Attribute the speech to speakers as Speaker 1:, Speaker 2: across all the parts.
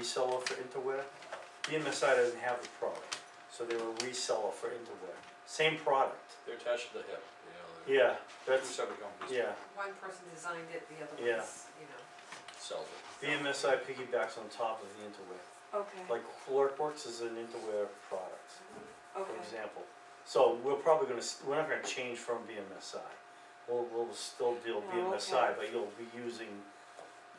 Speaker 1: reseller for Interware. BMSI doesn't have the product, so they were a reseller for Interware. Same product.
Speaker 2: They're attached to the hip, you know, they're
Speaker 1: Yeah,
Speaker 2: two
Speaker 1: that's,
Speaker 2: separate companies
Speaker 1: yeah.
Speaker 3: One person designed it, the other
Speaker 1: Yeah.
Speaker 3: one's, you know.
Speaker 2: that sells it.
Speaker 1: BMSI piggybacks on top of the Interware.
Speaker 4: Okay,
Speaker 1: Like Clerkworks is an Interware product. for
Speaker 4: okay,
Speaker 1: example. So we're probably gonna, s- we're not gonna change from BMSI. We'll, we'll still deal
Speaker 4: Oh,
Speaker 1: BMSI, but you'll be using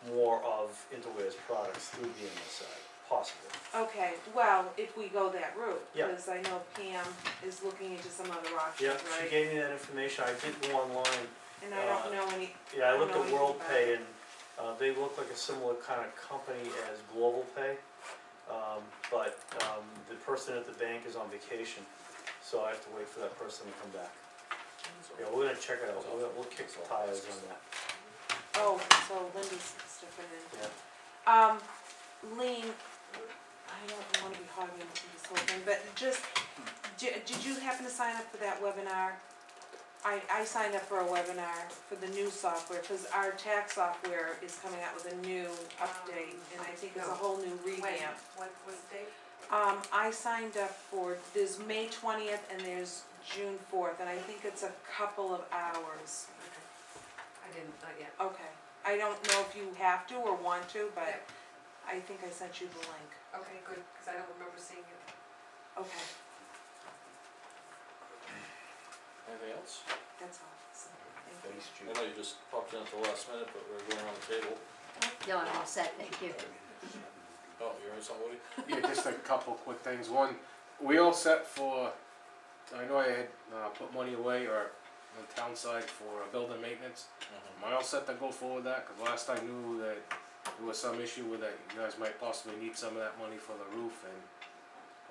Speaker 1: more of Interware's products through BMSI, possibly.
Speaker 4: okay, well, if we go that route,
Speaker 1: Yeah.
Speaker 4: cause I know Pam is looking into some other
Speaker 1: Yeah,
Speaker 4: options,
Speaker 1: she
Speaker 4: right?
Speaker 1: gave me that information, I did go online,
Speaker 4: And I
Speaker 1: uh,
Speaker 4: don't know any,
Speaker 1: yeah, I
Speaker 4: I don't
Speaker 1: looked
Speaker 4: know
Speaker 1: at
Speaker 4: anything about
Speaker 1: WorldPay and, uh, they look like a similar kind of company as Global Pay. Um, but, um, the person at the bank is on vacation, so I have to wait for that person to come back.
Speaker 2: So-
Speaker 1: Yeah, we're gonna check it out, we'll, we'll kick the tires on that,
Speaker 4: oh, so Linda's stepping in.
Speaker 1: yeah.
Speaker 4: Um, Lean, I don't wanna be hogging this whole thing, but just, di- did you happen to sign up for that webinar? I, I signed up for a webinar for the new software, cause our tax software is coming out with a new update, and I think it's a
Speaker 3: No.
Speaker 4: whole new
Speaker 3: When,
Speaker 4: revamp.
Speaker 3: what was the date?
Speaker 4: Um, I signed up for, there's May twentieth and there's June fourth, and I think it's a couple of hours.
Speaker 3: Okay. I didn't, not yet.
Speaker 4: Okay, I don't know if you have to or want to, but
Speaker 3: Yeah.
Speaker 4: I think I sent you the link.
Speaker 3: Okay, good, cause I don't remember seeing it.
Speaker 4: Okay,
Speaker 2: Anything else?
Speaker 4: that's all, so, thank you.
Speaker 5: Thanks, Jude.
Speaker 2: I know you just popped in at the last minute, but we're going around the table.
Speaker 6: No, I'm all set, thank you.
Speaker 2: Oh, you heard somebody?
Speaker 5: Yeah, just a couple quick things. One, we all set for, I know I had uh, put money away or on the town side for building maintenance.
Speaker 2: Uh-huh.
Speaker 5: Am I all set to go forward with that? Because last I knew that there was some issue with that, you guys might possibly need some of that money for the roof and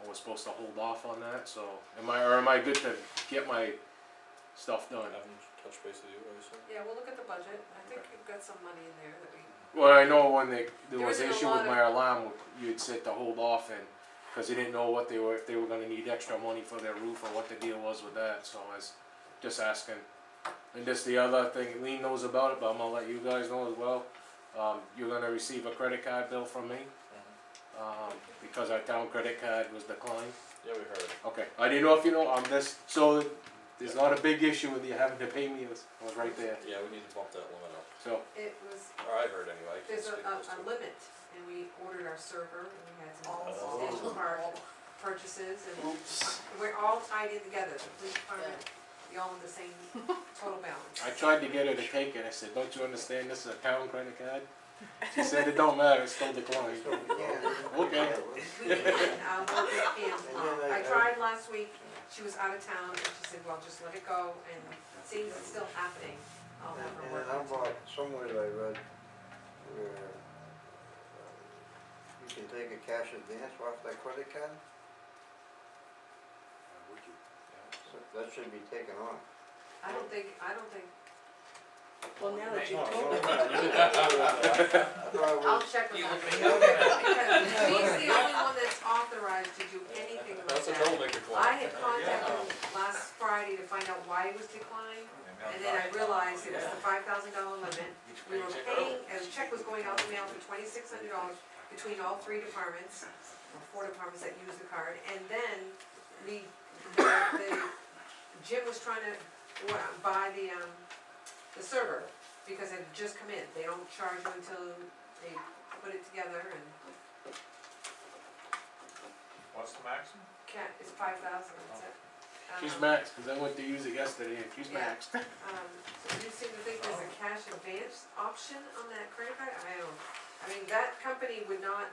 Speaker 5: I was supposed to hold off on that, so am I, or am I good to get my stuff done?
Speaker 2: I haven't touched base with you, I assume?
Speaker 3: Yeah, we'll look at the budget. I think you've got some money in there that we,
Speaker 5: Well, I know when they, there
Speaker 3: There
Speaker 5: was an
Speaker 3: isn't a
Speaker 5: issue
Speaker 3: lot
Speaker 5: with
Speaker 3: of-
Speaker 5: my alarm, you had said to hold off and, cause you didn't know what they were, if they were gonna need extra money for their roof or what the deal was with that, so I was just asking. And just the other thing, Lean knows about it, but I'm gonna let you guys know as well, um, you're gonna receive a credit card bill from me,
Speaker 2: Uh-huh.
Speaker 5: um, because our town credit card was declined.
Speaker 2: Yeah, we heard.
Speaker 5: Okay, I didn't know if you know, I'm just, so, there's not a big issue with you having to pay me, it was, it was right there,
Speaker 2: Yeah, we need to bump that limit up.
Speaker 5: so,
Speaker 3: it was,
Speaker 2: Or I heard anyway, I can't
Speaker 3: there's a,
Speaker 2: speak
Speaker 3: a,
Speaker 2: those
Speaker 3: a
Speaker 2: two.
Speaker 3: limit and we ordered our server and we had some
Speaker 1: Oh.
Speaker 3: substantial part purchases and we're all tied in together, the police department, we all in the same total balance.
Speaker 5: I tried to get her to take it. I said, "Don't you understand? This is a town credit card." She said, "It don't matter. It's still declined." Okay.
Speaker 3: We can, um, work with Pam.
Speaker 1: then
Speaker 3: I
Speaker 1: I-
Speaker 3: tried last week, she was out of town, and she said, well, just let it go, and seeing it's still happening, I'll
Speaker 7: And
Speaker 3: have her
Speaker 7: and
Speaker 3: work
Speaker 7: how
Speaker 3: on it.
Speaker 7: about, somewhere I read where uh, you can take a cash advance off that credit card, so that should be taken off.
Speaker 3: I don't think, I don't think,
Speaker 4: Well, now that
Speaker 1: No,
Speaker 4: you've told me,
Speaker 1: no, no.
Speaker 7: I thought it
Speaker 3: I'll
Speaker 7: was,
Speaker 3: check with her.
Speaker 7: okay.
Speaker 3: Because she's the only one that's authorized to do anything like
Speaker 2: That's a
Speaker 3: that.
Speaker 2: troublemaker clause.
Speaker 3: I had contacted her last Friday to find out why it was declined, and then I realized it was the five thousand dollar limit. We were paying, and the check was going out the mail for twenty-six hundred dollars between all three departments, or four departments that use the card, and then we, the, the- Jim was trying to wa- buy the, um, the server, because it had just come in, they don't charge you until they put it together and
Speaker 8: What's the maximum?
Speaker 3: can it's five thousand, that's it.
Speaker 5: She's
Speaker 3: Um,
Speaker 5: maxed because I went to use it yesterday, and she's
Speaker 3: Yeah.
Speaker 5: maxed.
Speaker 3: Um, so you seem to think there's a cash advance option on that credit card? I don't, I mean, that company would not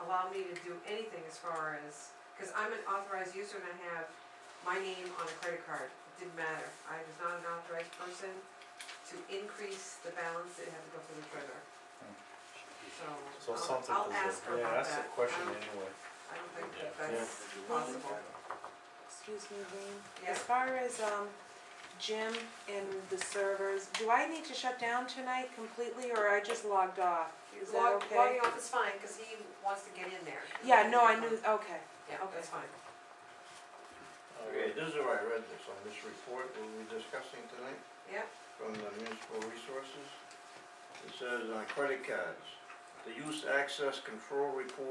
Speaker 3: allow me to do anything as far as, cause I'm an authorized user and I have my name on a credit card. It didn't matter. I was not an authorized person to increase the balance. It had to go through the treasurer.
Speaker 1: So
Speaker 3: So I'll,
Speaker 1: something,
Speaker 3: I'll
Speaker 1: to
Speaker 3: ask her
Speaker 1: do. yeah,
Speaker 3: about
Speaker 1: that's the
Speaker 3: that. Um,
Speaker 1: question
Speaker 3: I don't,
Speaker 1: anyway.
Speaker 3: I don't think
Speaker 2: Yeah.
Speaker 3: that that's possible.
Speaker 4: excuse me, Lean,
Speaker 3: Yeah.
Speaker 4: as far as, um, Jim and the servers, do I need to shut down tonight completely, or I just logged off? Is that
Speaker 3: Log-
Speaker 4: okay?
Speaker 3: Logging off is fine, cause he wants to get in there.
Speaker 4: Yeah, no, I knew, okay,
Speaker 3: Yeah,
Speaker 4: Okay.
Speaker 3: that's fine.
Speaker 7: Okay, this is where I read this, on this report that we're discussing tonight.
Speaker 3: Yeah.
Speaker 7: From the municipal resources. It says on credit cards, the use access control report